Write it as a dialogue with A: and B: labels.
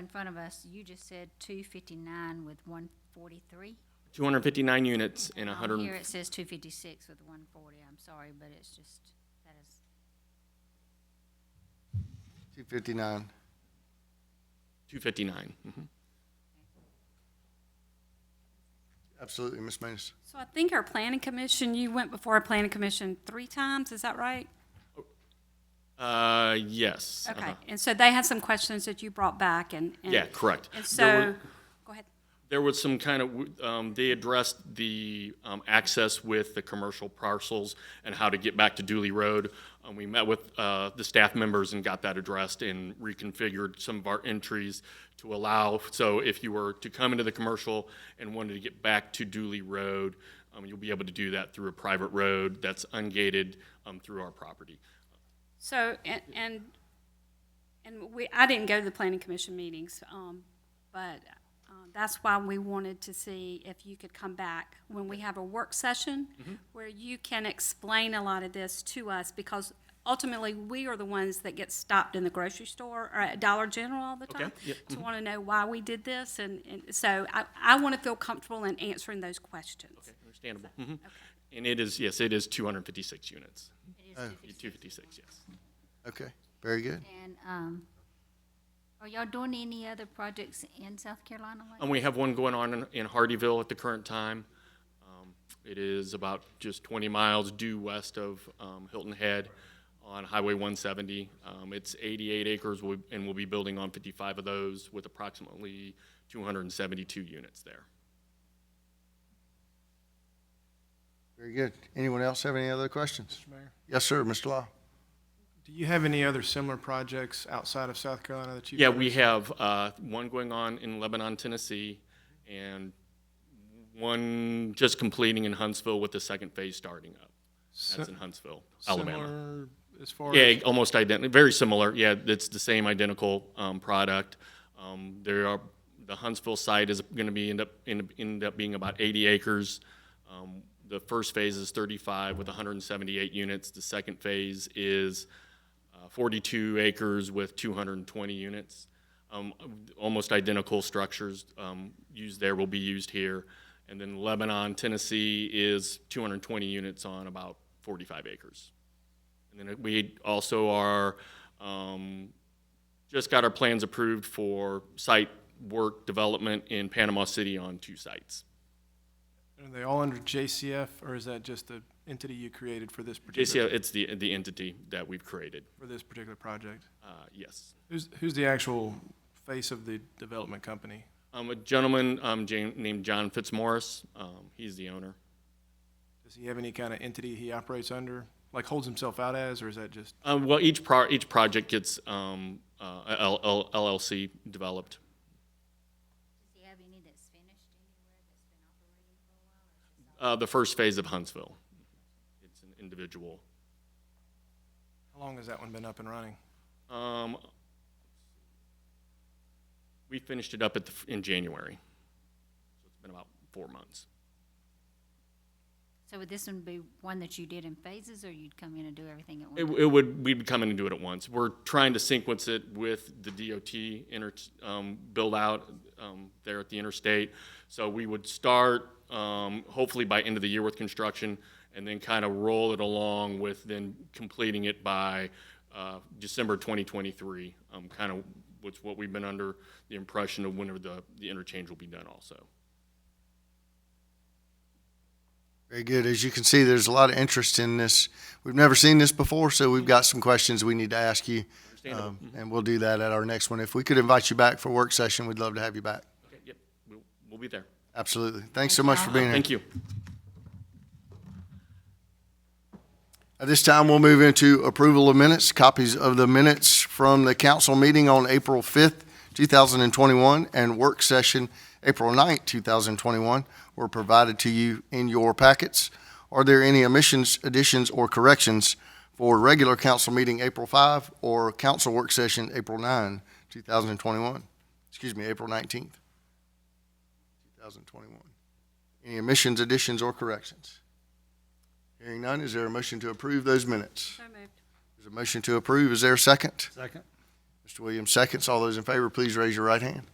A: front of us, you just said two fifty-nine with one forty-three.
B: 259 units in 100.
A: Here it says two fifty-six with one forty, I'm sorry, but it's just, that is,
C: Two fifty-nine.
B: 259. mhm.
C: Absolutely, Ms. Manis.
D: So I think our planning commission, you went before our planning commission three times, is that right?
B: Uh, yes.
D: Okay,
B: uh-huh.
D: and so they had some questions that you brought back and. and-
B: Yeah, correct. There
D: And so,
B: were-
D: go ahead.
B: There was some kind of, um, they addressed the, um, access with the commercial parcels and how to get back to Dooley Road. Um, we met with, uh, the staff members and got that addressed and reconfigured some of our entries to allow, so if you were to come into the commercial and wanted to get back to Dooley Road, um, you'll be able to do that through a private road that's ungated, um, through our property.
D: So, and, and, and we, I didn't go to the planning commission meetings, um, but, um, that's why we wanted to see if you could come back when we have a work session
B: Mm-hmm.
D: where you can explain a lot of this to us, because ultimately, we are the ones that get stopped in the grocery store or at Dollar General all the
B: Okay,
D: time
B: yep, Mm-hmm.
D: to want to know why we did this, and, and so I, I want to feel comfortable in answering those questions.
B: Understandable. Mhm. And it is, yes, it is 256 units. It is 256, yes.
C: Okay, very good.
A: and, um, are y'all doing any other projects in South Carolina? like-
B: And we have one going on in- in Hardyville at the current time. Um, It is about just 20 miles due west of um, Hilton Head on Highway 170. Um, It's 88 acres, we'll- and we'll be building on 55 of those with approximately 272 units there.
C: Very good. Anyone else have any other questions?
E: Mayor.
C: Yes, sir, Mr. Law.
E: Do you have any other similar projects outside of South Carolina that you?
B: Yeah, we have uh, one going on in Lebanon, Tennessee, and one just completing in Huntsville with the second phase starting up. That's in Huntsville, Alabama.
E: Similar as far
B: Yeah,
E: as
B: almost identical, very similar. Yeah, it's the same identical um, product. Um, There are, the Huntsville site is going to be, end up, end end up being about 80 acres. Um, The first phase is 35 with 178 units. The second phase is uh, 42 acres with 220 units. Um, Almost identical structures um, used there will be used here. And then Lebanon, Tennessee is 220 units on about 45 acres. And then we also are, um, just got our plans approved for site work development in Panama City on two sites.
E: are they all under JCF or is that just the entity you created for this particular
B: JCL, it's the, the entity that we've created,
E: for this particular project?
B: uh, yes.
E: Who's who's the actual face of the development company?
B: Um, a gentleman, um, Jan- named John Fitzmaurice, um, he's the owner.
E: Does he have any kind of entity he operates under, like holds himself out as, or is that just?
B: Um, well, each pro, each project gets, um, uh, a L- L- LLC developed.
A: Does he have any that's finished anywhere that's been operating for a while? or just all-
B: Uh, the first phase of Huntsville. It's an individual.
E: How long has that one been up and running?
B: Um, we finished it up at the, in January. So it's been about four months.
A: So would this one be one that you did in phases, or you'd come in and do everything at once?
B: It, it would, we'd come in and do it at once. We're trying to sequence it with the DOT inter, um, build out, um, there at the interstate. So we would start, um, hopefully by end of the year with construction and then kind of roll it along with then completing it by, uh, December twenty twenty-three. Um, kind of, what's what we've been under the impression of whenever the, the interchange will be done also.
C: Very good. As you can see, there's a lot of interest in this. We've never seen this before, so we've got some questions we need to ask you.
B: Understandable.
C: Um, And we'll do that at our next one. If we could invite you back for a work session, we'd love to have you back.
B: Okay, yep, we'll, we'll be there.
C: Absolutely. Thanks so much for being here.
B: Thank you.
C: At this time, we'll move into approval of minutes, copies of the minutes from the council meeting on April 5th, 2021, and work session April 9th, 2021 were provided to you in your packets. Are there any omissions, additions, or corrections for regular council meeting April 5 or council work session April 9, 2021? Excuse me, April 19th, 2021. Any omissions, additions, or corrections? Hearing none, is there a motion to approve those minutes?
D: So moved.
C: There's a motion to approve. Is there a second?
F: Second.
C: Mr. Williams seconds. All those in favor, please raise your right hand.